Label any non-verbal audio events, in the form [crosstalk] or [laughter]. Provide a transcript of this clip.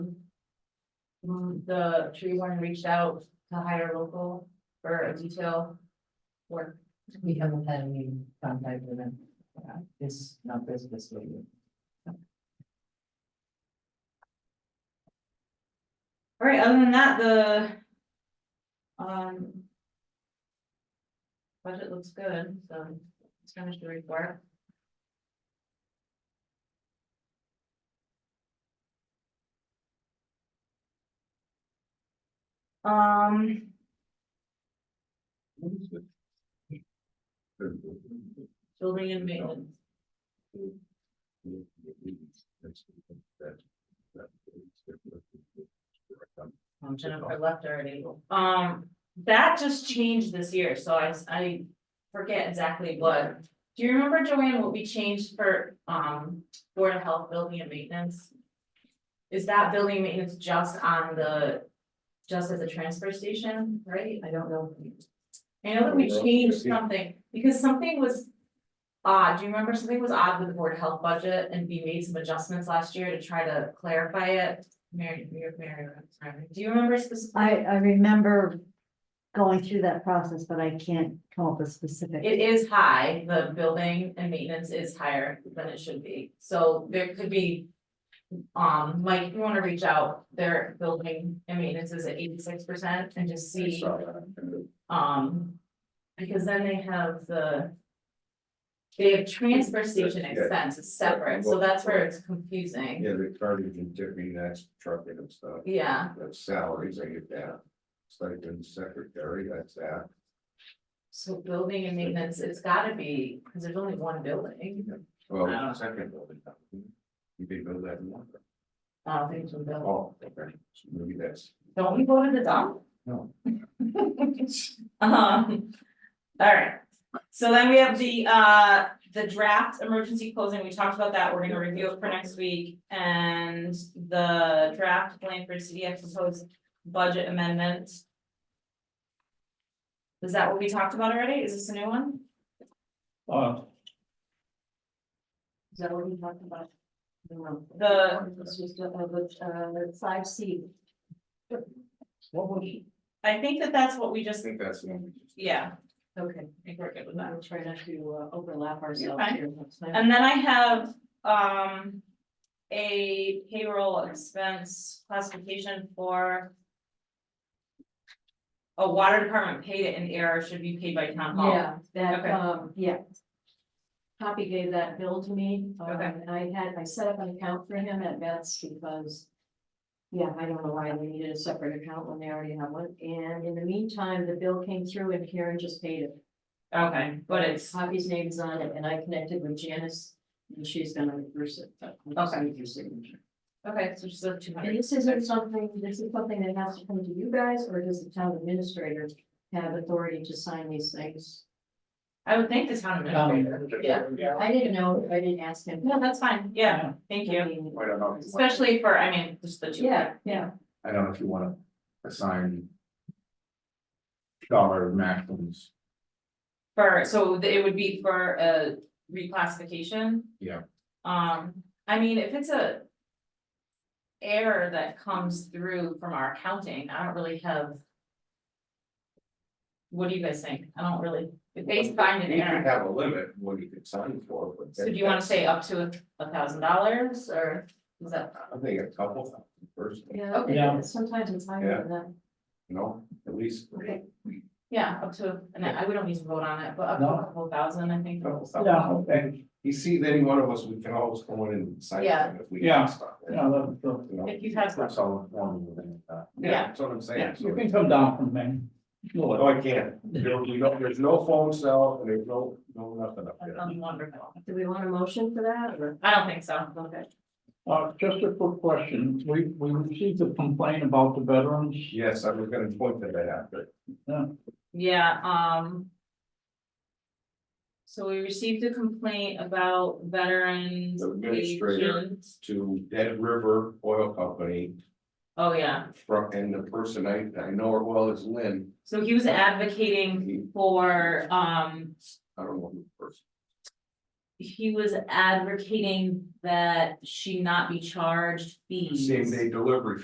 mm, the tree warden reached out to hire local for a detail work. We haven't had any contact with them. uh, This, not this, this lady. All right, other than that, the um budget looks good, so let's finish the report. Um, building and maintenance. Um, Jennifer left already. Um, that just changed this year, so I, s- I forget exactly what. Do you remember, Joanne, what we changed for, um, Board of Health Building and Maintenance? Is that building and maintenance just on the, just at the transfer station, right? I don't know. I know that we changed something, because something was odd, do you remember something was odd with the Board of Health budget, and we made some adjustments last year to try to clarify it? Mary, Mary, Mary, sorry. do you remember specifically? I, I remember going through that process, but I can't come up with specific. It is high, the building and maintenance is higher than it should be, so there could be. Um, Mike, if you wanna reach out, their building and maintenance is at eighty-six percent and just see, um. Because then they have the. They have transfer station Yeah. expense is separate, so that's where it's confusing, Yeah, the cartage and tipping, that's trucking and stuff, yeah, that's salaries, I get that. Stipend secretary, that's that. so building and maintenance, it's gotta be, cause there's only one building. Well, second building. You can build that in one. I don't think it's a building, Oh, okay, maybe that's, don't we go to the dump? no. [laughs] Um, all right, so then we have the uh, the draft emergency closing, we talked about that, we're gonna review it for next week. And the draft plan for CDF proposed budget amendment. Is that what we talked about already? Is this a new one? Uh, Is that what we talked about? No. The- This was the, uh, the, uh, five C. what was, I think that that's what we I just, think that's the one we just. yeah, Okay. I think we're good with that. We'll try not to uh, overlap ourselves fine. here. And then I have, um, a payroll expense classification for. A water department paid it in error should be paid by town hall. Yeah, that, Oh, Okay. um, yeah. Poppy gave that bill to me. um, Okay. And I had, I set up an account for him at Vets because. Yeah, I don't know why they needed a separate account when they already have one. And in the meantime, the bill came through and Karen just paid it. Okay, but it's, Poppy's name's on it and I connected with Janice and she's gonna reverse it. but I just Okay. need your signature. okay, so just the two And hundred, this isn't something, this is something that has to come to you guys or does the town administrator have authority to sign these things? I would think the town administrator, yeah, I didn't know, I didn't ask him. [laughs] no, that's fine, yeah, Yeah. thank you, I don't know. if you want- especially for, I mean, just the two. Yeah, yeah, I don't know if you wanna assign. Dollar maximums, For, so th- it would be for a reclassification? Yeah. Um, I mean, if it's a. Error that comes through from our accounting, I don't really have. What do you guys think? I don't really, if they find an you can error, have a limit, what you can sign for, but. so do you wanna say up to a thousand dollars or is that? I think a couple, first, you yeah. Okay. Yeah. Sometimes it's higher than that. know, at least. Okay. Yeah, up to, and I, we don't need to vote on it, but up to No. a couple thousand, I think. Couple yeah, thousand. okay, You see, any one of us, we can always go in and sign. Yeah. it If we Yeah. can stop it, yeah, that- that- you know? If you have, That's all I'm wanting with that. Yeah. That's what I'm yeah, saying. you So- can come down from Maine. No, I can't. There- you don't- there's no phone cell and there's no, no nothing up that there. sounds wonderful. Do we want a motion for that or? I don't think so. Okay. Uh, just a quick question, we, we received a complaint about the veterans, Yes, I was gonna point to that after. Yeah, um. So we received a complaint about veterans. Administrator. agents. to Dead River Oil Company Oh, yeah, from, and the person I, I know her well is Lynn. so he was advocating He- for, um, I don't know who the person. he was advocating that she not be charged fees. Same day delivery